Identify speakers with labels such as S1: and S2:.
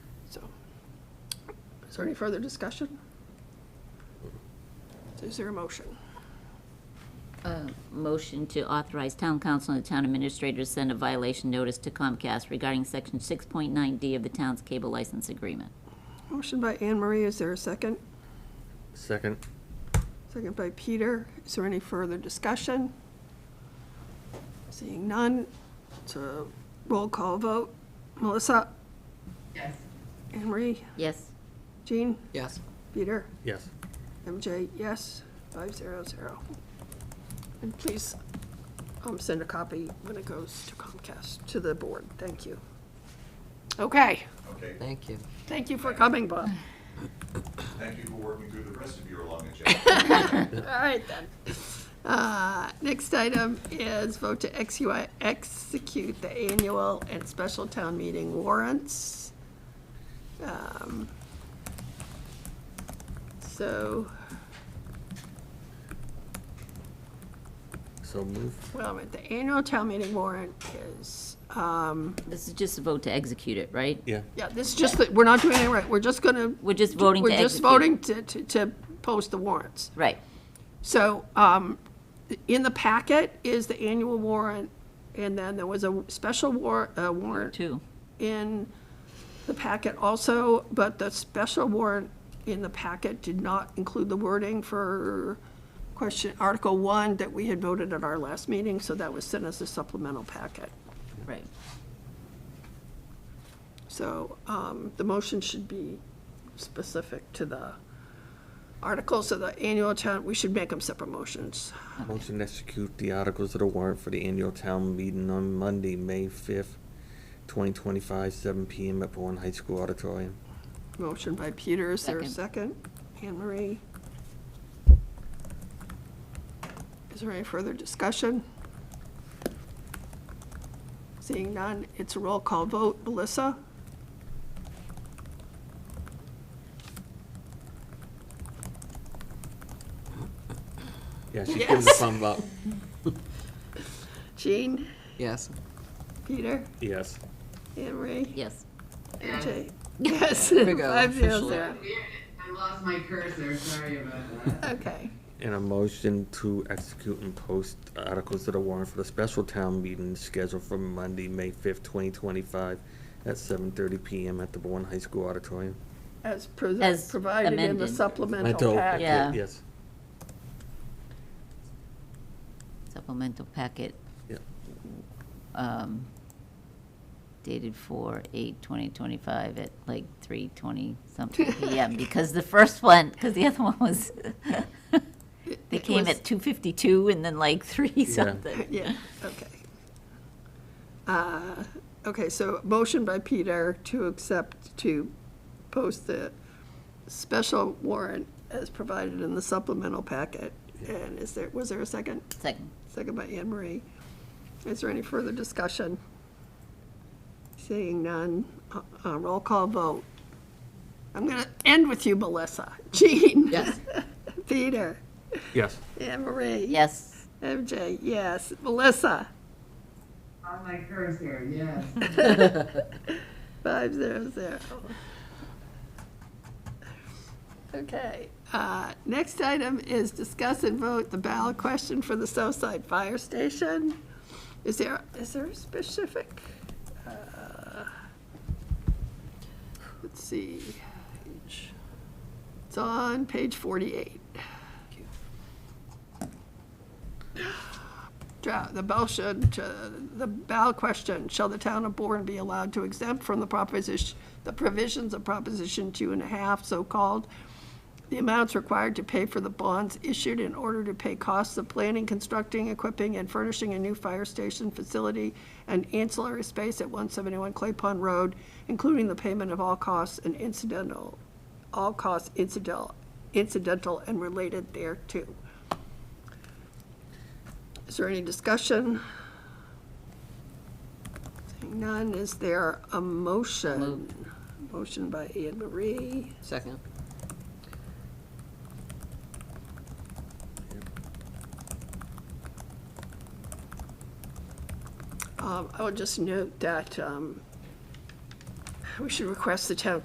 S1: there any further discussion? Is there a motion?
S2: Motion to authorize town council and the town administrator to send a violation notice to Comcast regarding section 6.9D of the town's cable license agreement.
S1: Motion by Anne Marie, is there a second?
S3: Second.
S1: Second by Peter. Is there any further discussion? Seeing none, it's a roll call vote. Melissa?
S4: Yes.
S1: Anne Marie?
S2: Yes?
S1: Jean?
S4: Yes.
S1: Peter?
S3: Yes.
S1: MJ, yes, five zero zero. And please, um, send a copy when it goes to Comcast, to the board, thank you. Okay,
S4: Thank you.
S1: thank you for coming, Bob.
S5: Thank you for working through the rest of your long agenda.
S1: All right then. Uh, next item is vote to execute, execute the annual and special town meeting warrants. Um, So,
S3: So move.
S1: well, the annual town meeting warrant is, um,
S2: This is just a vote to execute it, right?
S3: Yeah.
S1: Yeah, this is just, that we're not doing it right, we're just gonna.
S2: We're just voting to
S1: We're just
S2: execute.
S1: voting to, to, to post the warrants.
S2: Right.
S1: So, um, in the packet is the annual warrant, and then there was a special war, uh, warrant
S2: Two.
S1: in the packet also, but the special warrant in the packet did not include the wording for question, Article One that we had voted at our last meeting, so that was sent as a supplemental packet.
S2: Right.
S1: So um, the motion should be specific to the articles of the annual town, we should make them separate motions.
S3: Motion to execute the articles of the warrant for the annual town meeting on Monday, May fifth, twenty twenty-five, seven PM at Bourne High School Auditorium.
S1: Motion by Peter, is there a second?
S2: Second.
S1: Anne Marie? Is there any further discussion? Seeing none, it's a roll call vote. Melissa?
S3: Yeah, she's giving the
S1: Yes.
S3: thumb up.
S1: Jean?
S4: Yes.
S1: Peter?
S3: Yes.
S1: Anne Marie?
S2: Yes.
S1: MJ? Yes.
S4: we go,
S1: Five zero
S4: officially.
S1: zero.
S6: I lost my cursor, sorry about that.
S1: Okay.
S3: And a motion to execute and post articles of the warrant for the special town meeting scheduled for Monday, May fifth, twenty twenty-five, at seven thirty PM at the Bourne High School Auditorium.
S1: As pre-
S2: As
S1: provided in the
S2: amended.
S1: supplemental
S3: Mental-
S1: packet.
S2: Yeah.
S3: Yes.
S2: Supplemental packet
S3: Yeah.
S2: um, dated for 8/2025 at like 3:20 something PM. Because the first one, because the other one was, they
S1: it
S2: came
S1: was-
S2: at 2:52 and then like 3 something.
S1: Yeah, okay. Uh, Okay, so motion by Peter to accept, to post the special warrant as provided in the supplemental packet. And is there, was there a second?
S2: Second.
S1: Second by Anne Marie. Is there any further discussion? Seeing none, uh, uh, roll call vote. I'm going to end with you, Melissa. Jean?
S4: Yes.
S1: Peter?
S3: Yes.
S1: Anne Marie?
S2: Yes.
S1: MJ, yes. Melissa?
S6: Lost my cursor, yes.
S1: Five zero zero. Okay, uh, next item is discuss and vote the ballot question for the Southside Fire Station. Is there, is there a specific? uh, Let's see. It's on page forty-eight. Dra- the motion to, the ballot question, shall the town of Bourne be allowed to exempt from the proposition, the provisions of Proposition Two and a Half, so-called, the amounts required to pay for the bonds issued in order to pay costs of planning, constructing, equipping, and furnishing a new fire station facility and ancillary space at one seventy-one Clay Pond Road, including the payment of all costs and incidental, all costs incidental, incidental and related thereto. Is there any discussion? Seeing none, is there a motion?
S2: Moved.
S1: Motion by Anne Marie,
S4: Second.
S1: Um, I would just note that um, we should request the town